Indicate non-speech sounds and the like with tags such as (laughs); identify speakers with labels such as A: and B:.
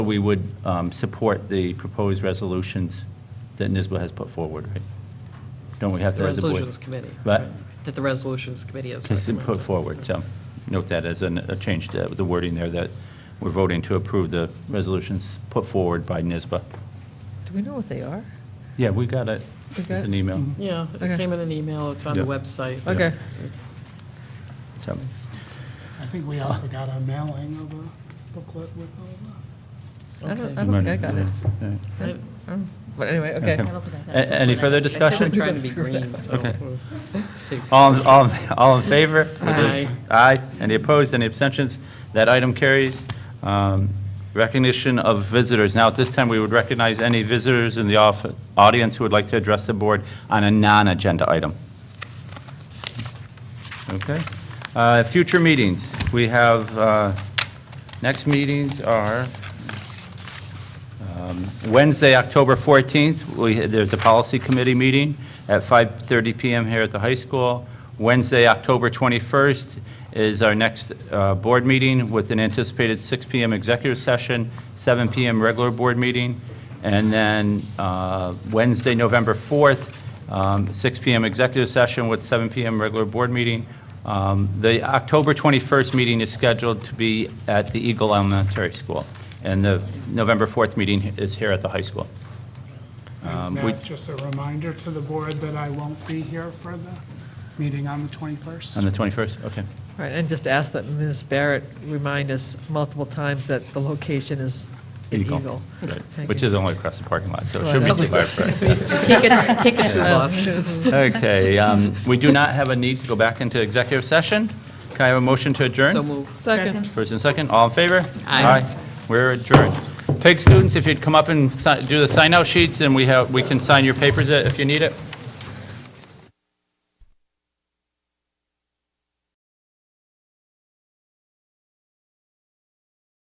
A: We would um, support the proposed resolutions that NISBA has put forward, right? Don't we have
B: The
A: to, as a board?
B: Resolutions Committee.
A: But-
B: right, That the Resolutions Committee has
A: Has been
B: recommended.
A: put forward, so note that as an- a change to the wording there, that we're voting to approve the resolutions put forward by NISBA.
C: Do we know what they are?
A: Yeah, we got it.
C: We got
A: It's
C: it?
A: an email.
B: Yeah,
C: Okay.
B: it came in an email, it's on the
A: Yeah.
B: website.
C: Okay.
A: So,
D: I think we also got a mailing of a booklet with all the.
C: I don't, I
A: you
C: don't
A: might-
C: think I got it.
A: yeah.
B: I-
C: But anyway, okay.
A: Okay.
E: I
A: A- Any further
B: I
A: discussion?
B: think we're trying to be green, so.
A: Okay.
B: (laughs) we'll see.
A: All, in- all, in- all in favor?
B: Aye.
A: Aye. Any opposed, any abstentions? That item carries. Um, Recognition of visitors. Now, at this time, we would recognize any visitors in the off- audience who would like to address the board on a non-agenda item. Okay. Uh, Future meetings. We have, uh, next meetings are Wednesday, October 14th, we, there's a policy committee meeting at 5:30 PM here at the high school. Wednesday, October 21st is our next uh, board meeting with an anticipated 6 PM executive session, 7 PM regular board meeting, and then uh, Wednesday, November 4th, um, 6 PM executive session with 7 PM regular board meeting. Um, The October 21st meeting is scheduled to be at the Eagle Elementary School, and the November 4th meeting is here at the high school. Um, we-
D: Matt, just a reminder to the board that I won't be here for the meeting on the 21st.
A: On the 21st, okay.
C: All right, and just ask that Ms. Barrett remind us multiple times that the location is in Eagle.
A: Right.
C: Thank
A: Which
C: you.
A: is only across the parking lot, so it
C: Well,
A: should be
C: that's-
A: clear first.
B: Kick it, kick it to the boss.
A: (laughs) Okay, um, we do not have a need to go back into executive session. Can I have a motion to adjourn?
B: So move.
C: Second.
A: First and second, all in favor?
B: Aye.
A: We're adjourned. PEG students, if you'd come up and si- do the sign-out sheets, and we have, we can sign your papers if you need it.